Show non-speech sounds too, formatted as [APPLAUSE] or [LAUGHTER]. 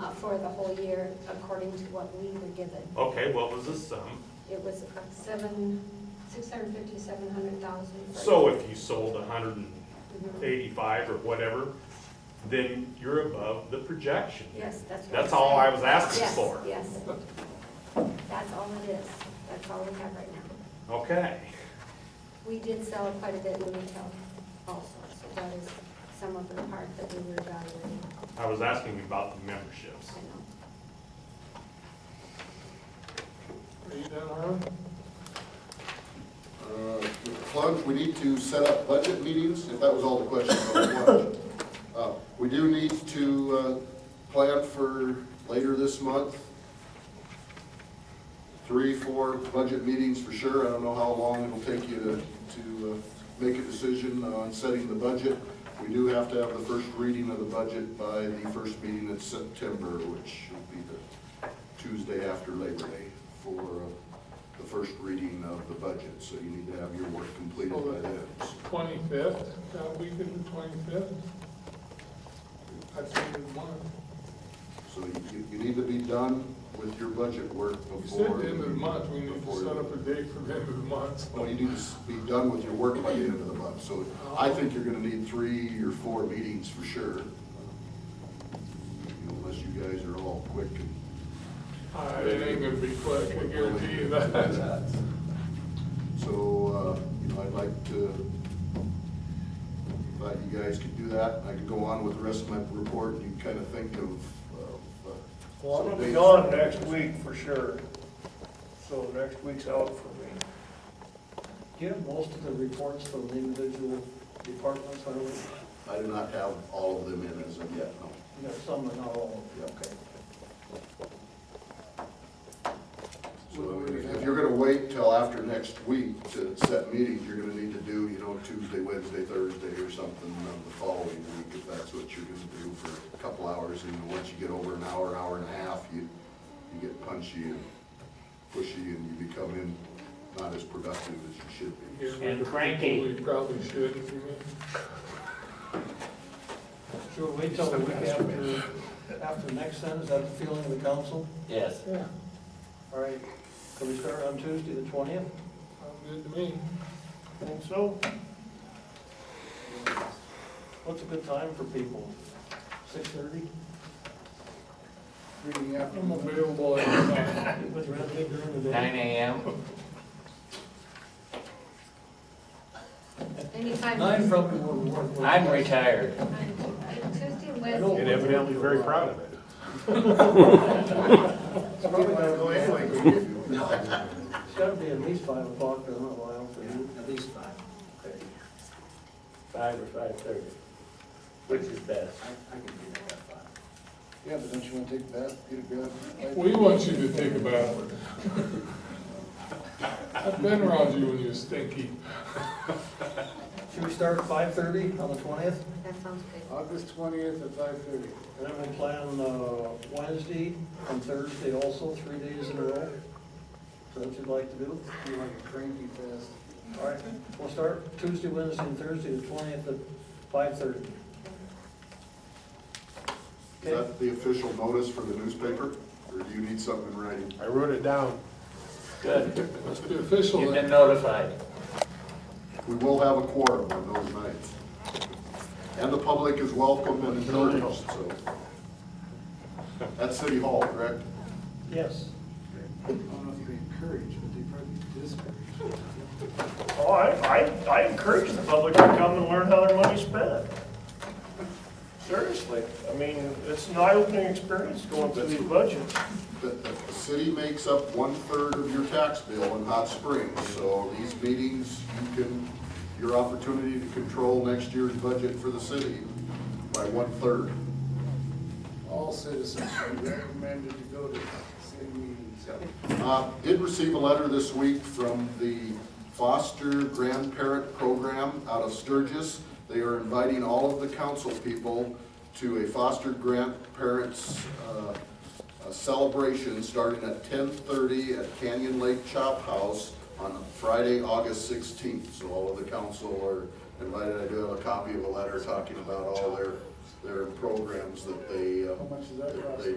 uh, for the whole year according to what we were given. Okay, what was the sum? It was seven, six hundred fifty, seven hundred thousand. So if you sold hundred and eighty-five or whatever, then you're above the projection. Yes, that's what I'm That's all I saying. was asking Yes, for. Yes, that's all it is. That's all we have right now. Okay, We did sell quite a bit in retail also, so that is some of the part that we were evaluating. I was asking about the memberships. I know. Are you done, Harlan? Uh, Plunge, we need to set up budget meetings, if that was all the question on plunge. Uh, We do need to uh, plan for later this month, three, four budget meetings for sure. I don't know how long it'll take you to, to uh, make a decision on setting the budget. We do have to have the first reading of the budget by the first meeting in September, which would be the Tuesday after Labor Day for uh, the first reading of the budget. So you need to have your work completed by then. Twenty-fifth, that week of the twenty-fifth? That's the month. So you, you need to be done with your budget work You said before. the end of the month, we need to before- set up a date for the end of the month. No, you need to s- be done with your work by the end of the month, so Oh. I think you're gonna need three or four meetings for sure. Unless you guys are all quick and, Uh, It ain't gonna be quick, I guarantee you [LAUGHS] that. so, uh, you know, I'd like to, thought you guys could do that, I could go on with the rest of my report, and you can kinda think of. of, uh, Well, I'm some gonna be dates. gone next week for sure, so next week's out for me. Do you have most of the reports from the individual departments, or we, I do not have all of them in as of yet, no. you got some and not all? Okay. So if you're gonna wait till after next week to set meetings, you're gonna need to do, you know, Tuesday, Wednesday, Thursday or something of the following week, if that's what you're gonna do for a couple hours. And once you get over an hour, hour and a half, you, you get punchy and pushy and you become in, not as productive as you should be. Get rid of the And people cranky. We probably should, if you mean. Sure, wait till the week after, after the next sentence, is that the feeling of the council? Yes. Yeah, All right, can we start on Tuesday, the twentieth? sounds good to me. Think so? What's a good time for people? Six thirty? Reading after. I'm available anytime. Anybody around here during the day? Nine AM? Anytime. Nine probably would work. I'm retired. Tuesday, and I know. Wednesday. And evidently very proud of it. It's probably gonna go anyway. Well, It's gotta be at least five o'clock, I don't know why else. At least five. Five or five thirty, which is best. Yeah, but don't you wanna take that, get a grab? We want you to take a bath. I've been around you when you were stinky. Should we start at five thirty on the twentieth? That sounds good. August twentieth at five thirty. And then we plan uh, Wednesday and Thursday also, three days in a row. So that you'd like to do? Be like a cranky fest. All right, we'll start Tuesday, Wednesday, and Thursday, the twentieth at five thirty. Is that the official notice for the newspaper, or do you need something in writing? I wrote it down. Good. Must be official You've then. been notified. We will have a quorum on those nights. And the public is welcome and encouraged, so. At City Hall, correct? Yes. Oh, I, I, I encourage the public to come and learn how their money's spent. Seriously, I mean, it's an eye-opening experience going through these budgets. The, the city makes up one-third of your tax bill in Hot Springs, so these meetings, you can, your opportunity to control next year's budget for the city by one-third. All citizens are recommended to go to city meetings. Uh, Did receive a letter this week from the Foster Grandparent Program out of Sturgis. They are inviting all of the council people to a foster grandparents uh, uh, celebration starting at 10:30 at Canyon Lake Chop House on Friday, August 16th. So all of the council are invited. I do have a copy of a letter talking about all their, their programs that they, uh, that they